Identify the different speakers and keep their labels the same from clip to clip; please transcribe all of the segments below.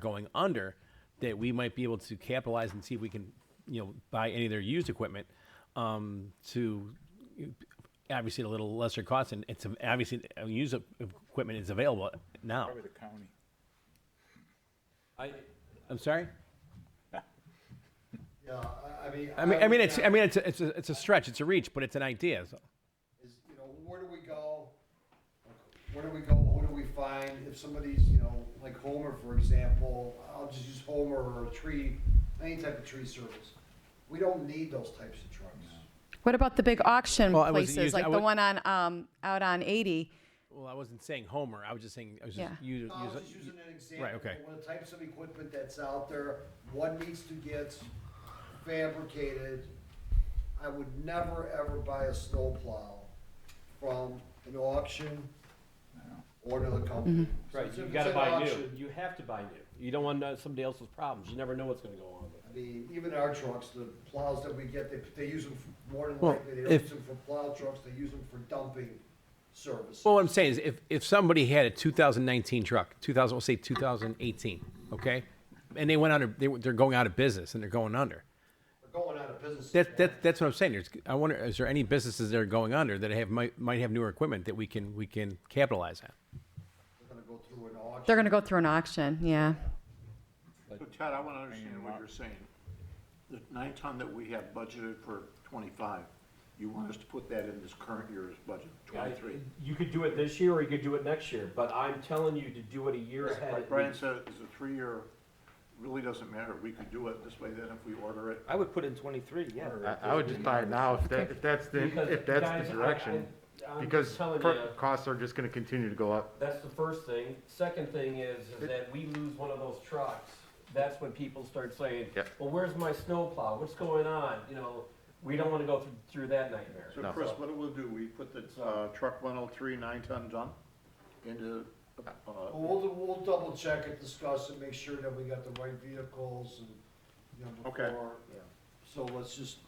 Speaker 1: going under, that we might be able to capitalize and see if we can, you know, buy any of their used equipment um, to obviously at a little lesser cost. And it's obviously uh, used e- equipment is available now.
Speaker 2: Probably the county.
Speaker 3: I,
Speaker 1: I'm sorry.
Speaker 4: Yeah, I, I mean.
Speaker 1: I mean, I mean, it's I
Speaker 4: would-
Speaker 1: mean, it's a, it's a, it's a stretch. It's a reach, but it's an idea. So.
Speaker 4: Is, you know, where do we go? Where do we go? Who do we find? If somebody's, you know, like Homer, for example, I'll just use Homer or a tree, any type of tree service. We don't need those types of trucks.
Speaker 5: What about the big auction
Speaker 1: Well, Oh, I wasn't
Speaker 5: places,
Speaker 1: used- I
Speaker 5: like the
Speaker 1: wa-
Speaker 5: one on, um, out on 80?
Speaker 1: Well, I wasn't saying Homer. I was just saying I was just
Speaker 5: Yeah.
Speaker 1: u-
Speaker 4: I was
Speaker 1: use-
Speaker 4: just using an
Speaker 1: Right,
Speaker 4: example,
Speaker 1: okay.
Speaker 4: of the types of equipment that's out there, one needs to get fabricated. I would never, ever buy a snowplow from an auction or another company. So
Speaker 3: right,
Speaker 4: it's-
Speaker 3: you
Speaker 4: if
Speaker 3: gotta
Speaker 4: it's an
Speaker 3: buy new.
Speaker 4: auction,
Speaker 3: You have to buy new. You don't wanna know somebody else's problems. You never know what's gonna go on with it.
Speaker 4: I mean, even our trucks, the plows that we get, they, they use them for- more than
Speaker 1: Well,
Speaker 4: likely, they don't
Speaker 1: if-
Speaker 4: use them for plow trucks, they use them for dumping service.
Speaker 1: Well, what I'm saying is, if, if somebody had a 2019 truck, 2000, we'll say 2018, okay, and they went under, they, were- they're going out of business and they're going under.
Speaker 4: They're going out of business.
Speaker 1: That, that that's what I'm saying. There's, I wonder, is there any businesses that are going under that have might, might have newer equipment that we can we can capitalize on?
Speaker 4: They're gonna go through an auction.
Speaker 5: They're going to go through an auction, yeah.
Speaker 6: So Ted, I want to understand what you're saying. The nine ton that we have budgeted for twenty-five, you want us to put that in this current year's budget, twenty-three?
Speaker 3: You could do it this year or you could do it next year, but I'm telling you to do it a year ahead.
Speaker 6: Like
Speaker 3: at
Speaker 6: Brian
Speaker 3: least.
Speaker 6: said, it's a three-year, really doesn't matter. We could do it this way then if we order it.
Speaker 3: I would put in twenty-three, yeah.
Speaker 7: I, I would just buy it now if that, if that's the,
Speaker 3: Because,
Speaker 7: if that's
Speaker 3: guys, I-
Speaker 7: the direction.
Speaker 3: I- I'm
Speaker 7: Because
Speaker 3: telling
Speaker 7: per-
Speaker 3: you.
Speaker 7: costs are just gonna continue to go up.
Speaker 3: That's the first thing. Second thing is, is that we lose one of those trucks. That's when people start saying,
Speaker 7: Yep.
Speaker 3: well, where's my snowplow? What's going on? You know, we don't wanna go through, through that nightmare.
Speaker 6: So Chris, what we'll do, we put the uh, truck one oh three nine ton dump into, uh,
Speaker 4: We'll, we'll double check it, discuss it, make sure that we got the right vehicles and, you know,
Speaker 6: Okay.
Speaker 4: before. yeah. So let's just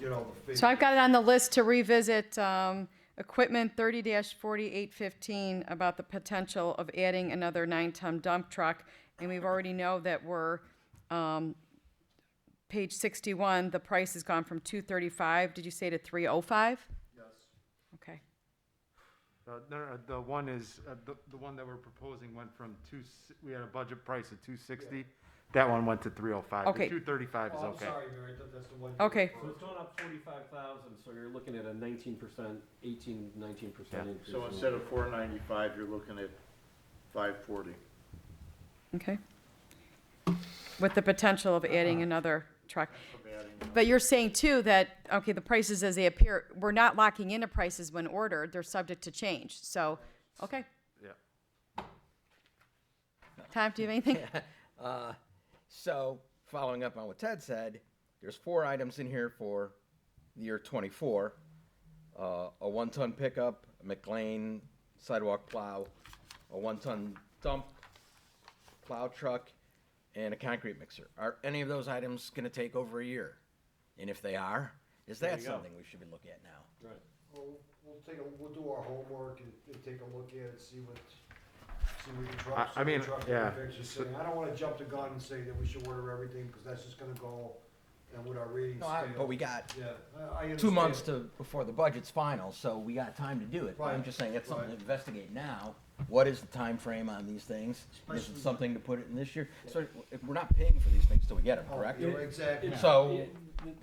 Speaker 4: get all the figures.
Speaker 5: So I've got it on the list to revisit um, equipment 30-4815 about the potential of adding another nine-ton dump truck. And we've already know that we're, um, page 61, the price has gone from 235, did you say to 305? Yes. Okay.
Speaker 7: Uh, no, no, the one is, uh, the, the one that we're proposing went from two, s- we had a budget price of two sixty. That one went to three oh five.
Speaker 5: Okay.
Speaker 7: Two thirty-five is
Speaker 4: Oh, I'm
Speaker 7: okay.
Speaker 4: sorry, Mary, I thought that's the one. you
Speaker 5: Okay.
Speaker 3: So it's going up forty-five thousand, so you're looking at a nineteen percent, eighteen, nineteen percent
Speaker 7: Yeah.
Speaker 3: increase.
Speaker 6: so instead of four ninety-five, you're looking at five forty.
Speaker 5: Okay. With the potential of adding another truck. But you're saying too that, okay, the prices as they appear, we're not locking into prices when ordered, they're subject to change, so, okay.
Speaker 7: Yeah.
Speaker 5: Tom, do you have anything?
Speaker 8: Uh, So, following up on what Ted said, there's four items in here for the year 24. Uh, a one-ton pickup, a McLean sidewalk plow, a one-ton dump plow truck, and a concrete mixer. Are any of those items going to take over a year? And if they are, is that something we should be looking at now?
Speaker 3: Right.
Speaker 4: We'll we'll take, a- we'll do our homework and, and take a look at it, see what, see what the truck.
Speaker 7: I- I
Speaker 4: see what
Speaker 7: mean,
Speaker 4: truck
Speaker 7: yeah.
Speaker 4: manufacturers say. I don't wanna jump the gun and say that we should order everything, cause that's just gonna go, and with our reading
Speaker 8: No, I,
Speaker 4: scale.
Speaker 8: but we got
Speaker 4: Yeah, I, I understand.
Speaker 8: two months to, before the budget's final, so we got time to do it. But I'm
Speaker 4: Right,
Speaker 8: just saying, that's something to
Speaker 4: right.
Speaker 8: investigate now. What is the time frame on these things? Is it
Speaker 4: Especially-
Speaker 8: something to put it in this year? So if we're not paying for these things till we get them,
Speaker 4: Oh,
Speaker 8: correct?
Speaker 4: yeah, Exactly.
Speaker 8: So,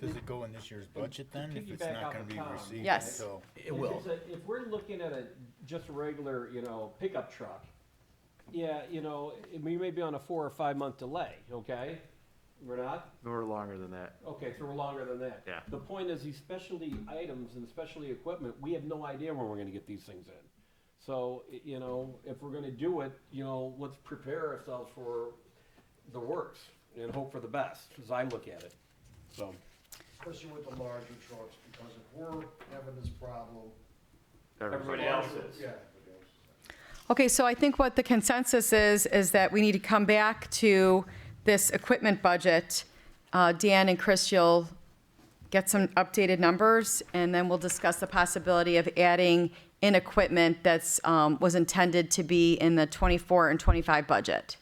Speaker 2: Does it go in this year's budget then, if it's
Speaker 3: piggyback
Speaker 2: not
Speaker 3: off
Speaker 2: gonna
Speaker 3: of
Speaker 2: be
Speaker 3: Tom.
Speaker 2: received
Speaker 5: Yes.
Speaker 2: until?
Speaker 8: it will.
Speaker 3: If, it's a- if we're looking at a just a regular, you know, pickup truck, yeah, you know, it- we may be on a four or five month delay. Okay, we're not.
Speaker 7: We're longer than that.
Speaker 3: Okay, so we're longer than that.
Speaker 7: Yeah.
Speaker 3: The point is these specialty items and specialty equipment, we have no idea when we're gonna get these things in. So, i- you know, if we're gonna do it, you know, let's prepare ourselves for the worst and hope for the best, as I look at it, so.
Speaker 4: Especially with the larger trucks, because if we're having this problem.
Speaker 3: Everybody else is.
Speaker 4: Yeah.
Speaker 5: Okay, so I think what the consensus is, is that we need to come back to this equipment budget. Uh, Dan and Chris, you'll get some updated numbers, and then we'll discuss the possibility of adding in equipment that's, um, was intended to be in the 24 and 25 budget.